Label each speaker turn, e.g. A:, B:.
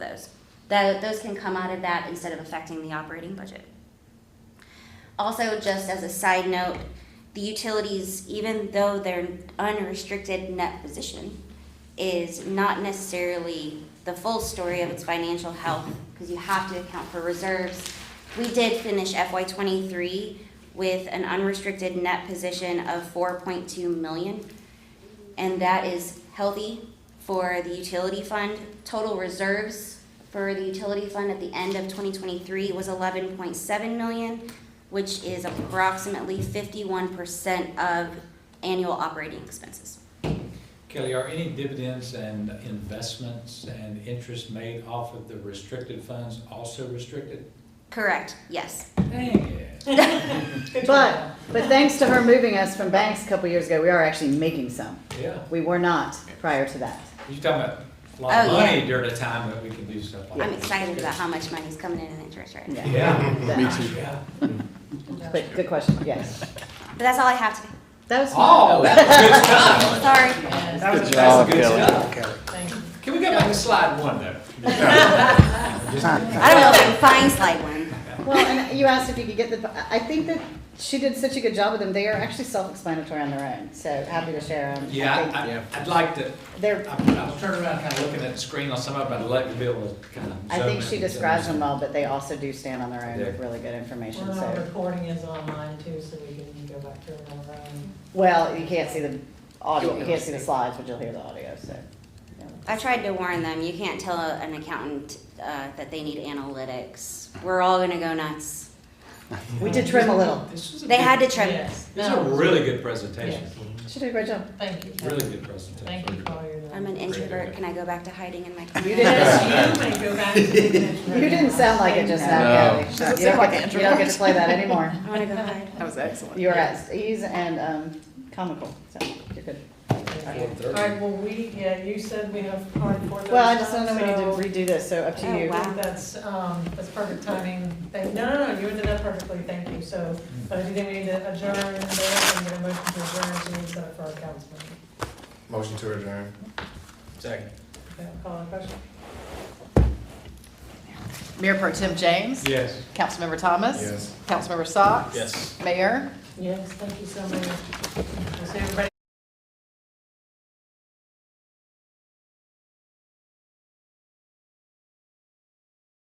A: Tho- those can come out of that instead of affecting the operating budget. Also, just as a side note, the utilities, even though their unrestricted net position is not necessarily the full story of its financial health, because you have to account for reserves. We did finish FY twenty-three with an unrestricted net position of four point two million. And that is healthy for the utility fund. Total reserves for the utility fund at the end of twenty twenty-three was eleven point seven million, which is approximately fifty-one percent of annual operating expenses.
B: Kelly, are any dividends and investments and interest made off of the restricted funds also restricted?
A: Correct, yes.
B: Dang it.
C: But, but thanks to her moving us from banks a couple years ago, we are actually making some.
B: Yeah,
C: We were not prior to that.
B: you're talking about a lot of
A: Oh, yeah.
B: money during a time that we can do stuff like that.
A: I'm excited about how much money's coming in in interest right now.
C: Yeah.
B: Yeah.
C: Me
B: too. Yeah.
C: But good question, yes.
A: But that's all I have today.
C: That was.
B: Oh, that was good stuff.
A: Sorry.
B: That was,
D: job,
B: that's good
D: Kelly.
B: stuff. Can we go back to slide one though?
A: I don't know if I can find slide one.
C: Well, and you asked if you could get the, I think that she did such a good job with them. They are actually self-explanatory on their own, so happy to share them.
B: Yeah, I- I, I'd like to,
C: They're,
B: I I was turning around kind of looking at the screen on some of them, I'd like to be able to kind of.
C: I think
B: zoom
C: she
B: in.
C: describes them well, but they also do stand on their own with
B: Yeah.
C: really good information,
E: Well, our
C: so.
E: recording is online too, so we can go back to it on our own.
C: Well, you can't see the audio, you can't see the slides, but you'll hear the audio, so. yeah.
A: I tried to warn them, you can't tell a- an accountant uh, that they need analytics. We're all gonna go nuts.
B: Mm-hmm.
C: We did trim a little.
B: This was a
A: They
B: good-
A: had to trim.
E: Yes.
B: This is a
E: No,
B: really good presentation,
E: Yes.
C: She did a great job.
E: Thank you.
B: really good presentation.
E: Thank you for your.
A: I'm an introvert, can I go back to hiding in my corner?
C: You didn't-
E: Yes, you may go back to the introvert.
C: You didn't sound like it just now, Kelly. You don't
F: sound like
C: get-
F: an
C: You don't get to play that anymore.
A: I wanna go hide.
F: That was excellent.
C: You're at ease and um, comical, so you're good.
E: All right, well, we, yeah, you said we have hard four.
C: Well, I just don't know, we need to redo this, so up to
A: Oh,
C: you.
A: wow.
E: That's, um, that's perfect timing. Thank, no, no, no, you did that perfectly, thank you. So, but if you think we need to adjourn, then I'm gonna motion to adjourn, so we set it for our council meeting.
D: Motion to adjourn.
B: Second.
E: Okay, I'll Call a question.
F: Mayor Pro Tim James.
B: Yes.
F: Councilmember Thomas.
D: Yes.
F: Councilmember Socks.
B: Yes.
F: Mayor.
E: Yes, thank you so much. We'll see everybody